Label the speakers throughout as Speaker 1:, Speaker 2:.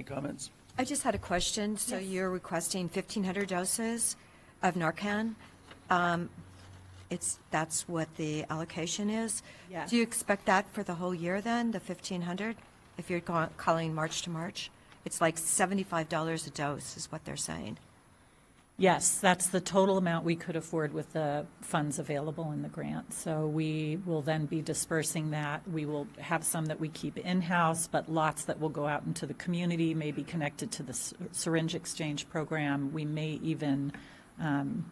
Speaker 1: Any comments?
Speaker 2: I just had a question. So you're requesting 1,500 doses of Narcan? Um, It's, that's what the allocation is?
Speaker 3: Yes.
Speaker 2: Do you expect that for the whole year then, the 1,500? If you're ca- calling March to March? It's like $75 a dose is what they're saying.
Speaker 3: Yes, that's the total amount we could afford with the funds available in the grant. So we will then be dispersing that. We will have some that we keep in-house, but lots that will go out into the community, may be connected to the s- syringe exchange program. We may even um,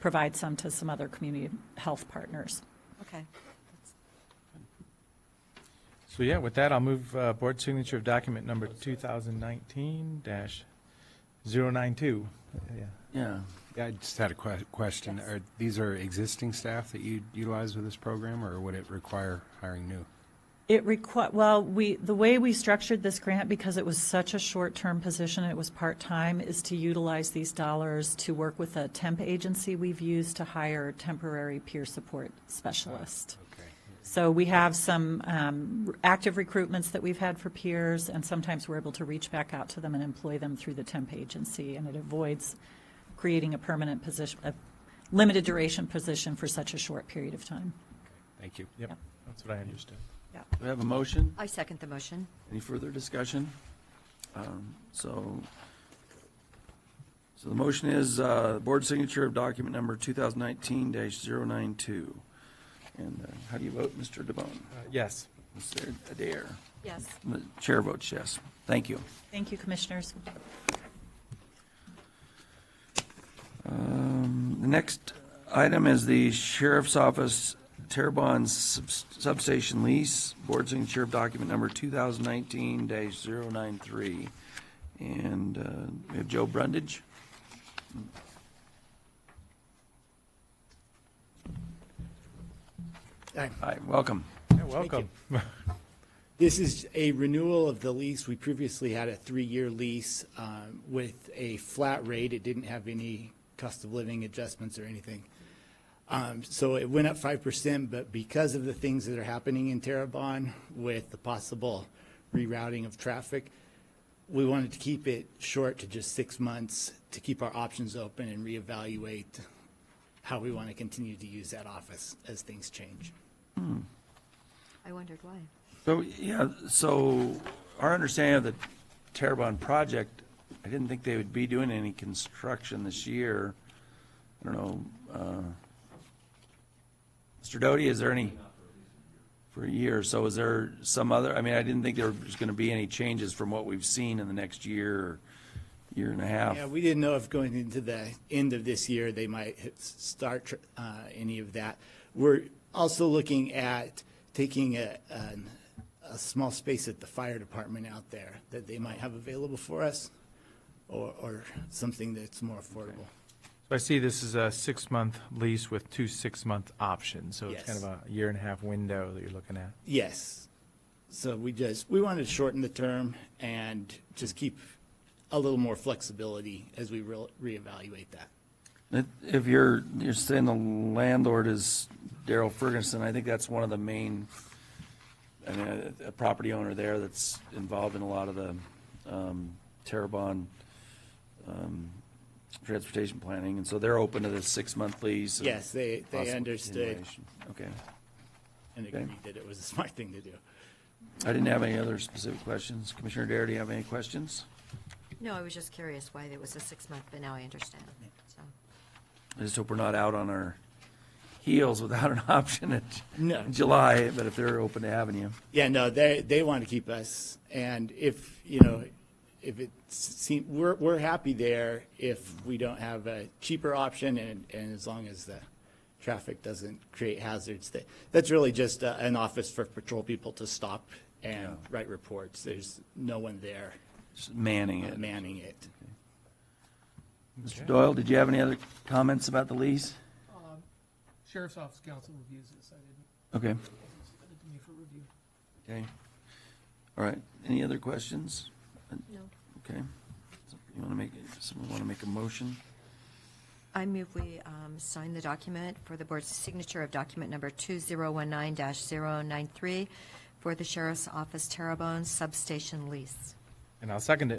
Speaker 3: provide some to some other community health partners.
Speaker 2: Okay.
Speaker 4: So yeah, with that, I'll move uh, board signature of document number 2019-092. Yeah.
Speaker 1: Yeah.
Speaker 5: Yeah, I just had a que- question. Are, these are existing staff that you utilize with this program, or would it require hiring new?
Speaker 3: It requi, well, we, the way we structured this grant, because it was such a short-term position, it was part-time, is to utilize these dollars to work with a temp agency we've used to hire temporary peer support specialist.
Speaker 5: Okay.
Speaker 3: So we have some um, r- active recruitments that we've had for peers, and sometimes we're able to reach back out to them and employ them through the temp agency, and it avoids creating a permanent position, a limited duration position for such a short period of time.
Speaker 5: Thank you.
Speaker 3: Yep.
Speaker 4: Yep, that's what I understood.
Speaker 1: Do we have a motion?
Speaker 2: I second the motion.
Speaker 1: Any further discussion? Um, So, so the motion is uh, board signature of document number 2019-092. And uh, how do you vote, Mr. DeBonne?
Speaker 4: Uh, Yes.
Speaker 1: Mr. Adair?
Speaker 2: Yes.
Speaker 1: The chair votes yes. Thank you.
Speaker 3: Thank you, Commissioners.
Speaker 1: Um, The next item is the Sheriff's Office Terrebonne subs- Substation Lease, Board Signature of Document Number 2019-093. And uh, we have Joe Brundage.
Speaker 6: Hi.
Speaker 1: Hi, welcome.
Speaker 4: Yeah, welcome.
Speaker 6: This is a renewal of the lease. We previously had a three-year lease um, with a flat rate. It didn't have any cost of living adjustments or anything. Um, So it went up 5%, but because of the things that are happening in Terrebonne with the possible rerouting of traffic, we wanted to keep it short to just six months to keep our options open and reevaluate how we want to continue to use that office as things change.
Speaker 2: I wondered why.
Speaker 1: So, yeah, so our understanding of the Terrebonne project, I didn't think they would be doing any construction this year. I don't know, uh, Mr. Doty, is there any? For a year, so is there some other, I mean, I didn't think there was gonna be any changes from what we've seen in the next year, or year and a half.
Speaker 6: Yeah, we didn't know if going into the end of this year, they might hit- start uh, any of that. We're also looking at taking a, an- a small space at the fire department out there that they might have available for us, or, or something that's more affordable.
Speaker 4: So I see this is a six-month lease with two six-month options, so it's kind
Speaker 6: Yes.
Speaker 4: of a year and a half window that you're looking at.
Speaker 6: Yes. So we just, we wanted to shorten the term and just keep a little more flexibility as we re- reevaluate that.
Speaker 1: If- If you're, you're saying the landlord is Daryl Ferguson, I think that's one of the main, I mean, a, a property owner there that's involved in a lot of the, um, Terrebonne, um, transportation planning, and so they're open to this six-month lease. and
Speaker 6: Yes, they- they
Speaker 1: possible
Speaker 6: understood.
Speaker 1: continuation. Okay.
Speaker 6: And
Speaker 1: Okay.
Speaker 6: agreed that it was a smart thing to do.
Speaker 1: I didn't have any other specific questions. Commissioner Dare, do you have any questions?
Speaker 2: No, I was just curious why it was a six-month, but now I understand. So,
Speaker 1: I just hope we're not out on our heels without an option in
Speaker 6: No.
Speaker 1: in July, but if they're open to having you.
Speaker 6: Yeah, no, they, they want to keep us, and if, you know, if it seem, we're, we're happy there if we don't have a cheaper option, and, and as long as the traffic doesn't create hazards, that, that's really just uh, an office for patrol people to stop and write reports, there's no one there
Speaker 1: Just Manning
Speaker 6: uh,
Speaker 1: it.
Speaker 6: manning it.
Speaker 1: Mr. Doyle, did you have any other comments about the lease?
Speaker 7: Sheriff's Office Council reviews this. I didn't
Speaker 1: Okay,
Speaker 7: send it to me for review.
Speaker 1: okay. All right, any other questions?
Speaker 2: no.
Speaker 1: Okay. You want to make, someone want to make a motion?
Speaker 2: I move we um, sign the document for the board's signature of document number 2019-093 for the Sheriff's Office Terrebonne Substation Lease.
Speaker 4: And I'll second it.